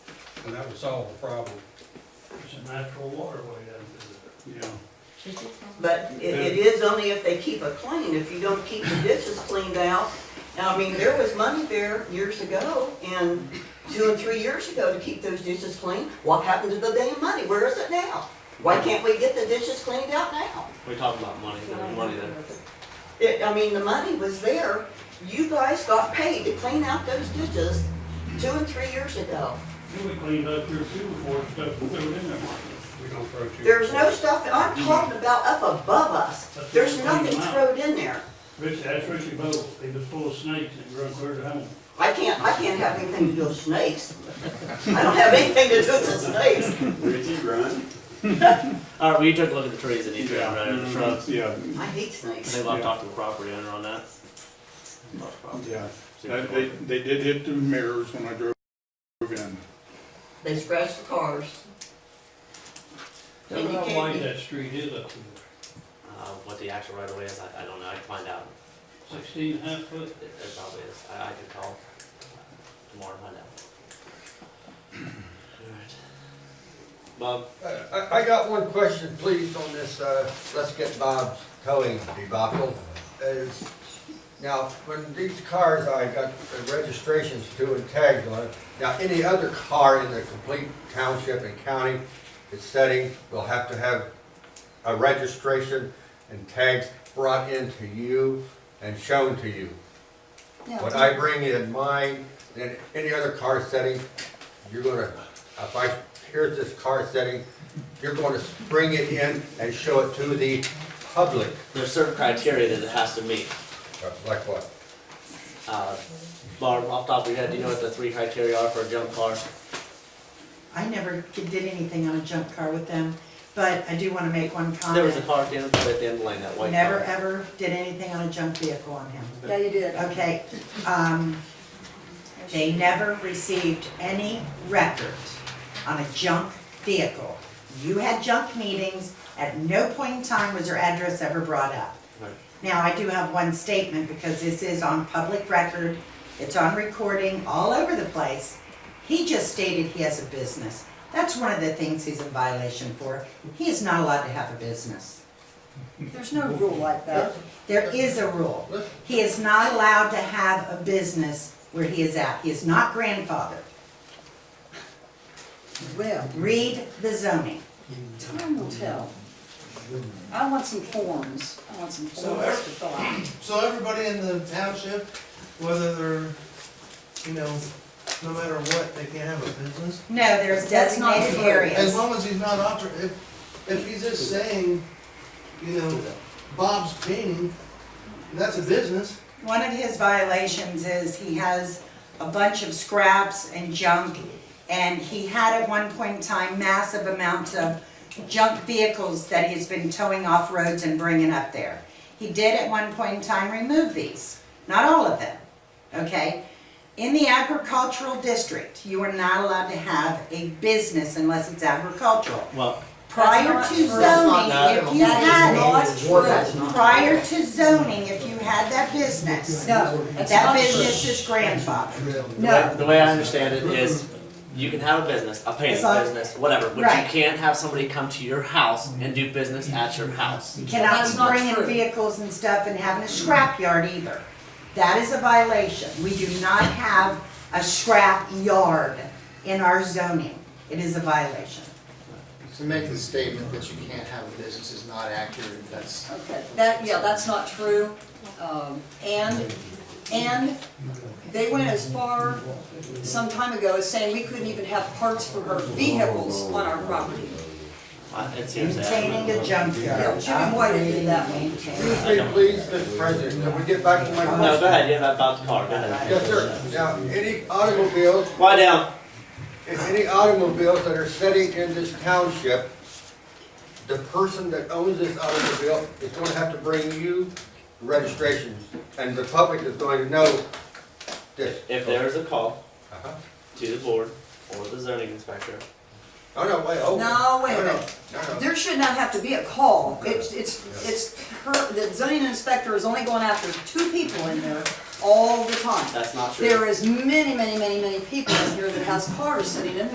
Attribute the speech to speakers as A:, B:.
A: and that would solve the problem.
B: It's a natural waterway down through there.
A: Yeah.
C: But it, it is only if they keep it clean, if you don't keep the dishes cleaned out. And I mean, there was money there years ago, and two and three years ago to keep those dishes clean. What happened to the damn money? Where is it now? Why can't we get the dishes cleaned out now?
D: We talked about money, there's money there.
C: It, I mean, the money was there. You guys got paid to clean out those dishes two and three years ago.
B: You would clean up your sewer board stuff and threw it in there.
A: We don't throw too.
C: There's no stuff, I'm talking about up above us. There's nothing thrown in there.
B: Richie, that's Richie Bowe, he was full of snakes and grew clear to home.
C: I can't, I can't have anything to do with snakes. I don't have anything to do with snakes.
E: Richie, run.
D: Alright, we took a look at the trees that need to be right over the shrubs.
E: uh, Yeah,
C: I hate
D: I
C: snakes.
D: think I'll talk to the property owner on that. Talk to property.
E: yeah.
D: See
E: They,
D: if
E: Uh, they-
D: it's-
E: they did hit the mirrors when I drove in.
C: They scratch the cars.
B: Tell
C: And
B: me
C: you
B: how
C: can't
B: wide
C: be-
B: that street is up there,
D: Uh, what the actual right of way is, I, I don't know, I can find out.
B: sixteen and a half foot?
D: It, it probably is, I, I could call uh, tomorrow and find out. Alright. Bob,
F: I, Uh, I got one question, please, on this, uh, let's get Bob's towing debacle. Is, now, when these cars, I got the registrations to and tags on it. Now, any other car in the complete township and county that's setting will have to have a registration and tags brought into you and shown to you. When I bring in mine, and any other car setting, you're gonna, if I, here's this car setting, you're gonna bring it in and show it to the public,
D: there's certain criteria that it has to meet.
F: like what?
D: Uh, Barb, off the top of your head, do you know what the three criteria are for a junk car?
G: I never did anything on a junk car with them, but I do want to make one comment.
D: There was a car at the end, at the end of the lane, that white car.
G: Um, Never, ever did anything on a junk vehicle on him.
H: Yeah, you did.
G: Okay, um, they never received any record on a junk vehicle. You had junk meetings, at no point in time was your address ever brought up.
D: Right.
G: Now, I do have one statement, because this is on public record, it's on recording all over the place. He just stated he has a business. That's one of the things he's in violation for. He is not allowed to have a business.
H: There's no rule like that.
G: There is a rule. He is not allowed to have a business where he is at. He is not grandfathered.
H: Well,
G: Read the zoning.
H: time will tell. I want some forms. I want some
I: So
H: forms to fill out.
I: So everybody in the township, whether they're, you know, no matter what, they can't have a business?
G: No, there's designated
H: true.
I: As
G: areas.
I: long as he's not oper, if, if he's just saying, you know, Bob's painting, that's a business.
G: One of his violations is he has a bunch of scraps and junk, and he had at one point in time massive amounts of junk vehicles that he's been towing off roads and bringing up there. He did at one point in time remove these, not all of them, okay? In the agricultural district, you are not allowed to have a business unless it's agricultural.
D: Well,
G: Prior
H: That's
G: to
H: not
G: zoning,
H: true.
G: if you had it,
H: That is not
F: That's
H: true.
G: prior to zoning, if you had that business,
H: No, that's
G: that
H: not
G: business
H: true.
G: is grandfathered.
D: the way,
H: No.
D: the way I understand it is, you can have a business, a painting
G: It's like-
D: business, whatever, but you
G: Right.
D: can't have somebody come to your house and do business at your house.
G: You
H: That's
G: cannot
H: not
G: be bringing
H: true.
G: vehicles and stuff and having a scrapyard either. That is a violation. We do not have a scrap yard in our zoning. It is a violation.
J: To make the statement that you can't have a business is not accurate, that's
H: Okay, that, yeah, that's not true. Um, And, and they went as far some time ago as saying we couldn't even have parts for our vehicles on our property.
D: Uh, It's hearsay.
G: Maintaining a
H: Yeah,
G: junkyard.
H: Jimmy White did that one.
F: Excuse me, please, Mr. President, can we get back to my question?
D: No, go ahead, you have about the car, go ahead.
F: Yes, sir. Now, any automobiles,
D: Lie down.
F: if any automobiles that are sitting in this township, the person that owns this automobile is gonna have to bring you registrations, and the public is going to know this.
D: If there is a call
F: Uh-huh.
D: to the board or the zoning inspector,
F: No, no, wait, oh.
H: No, wait
F: no,
H: a
F: no,
H: minute.
F: No, no.
H: There should not have to be a call. It's, it's, it's her, the zoning inspector is only going after two people in there all the time.
D: that's not true.
H: There is many, many, many, many people in here that has cars sitting in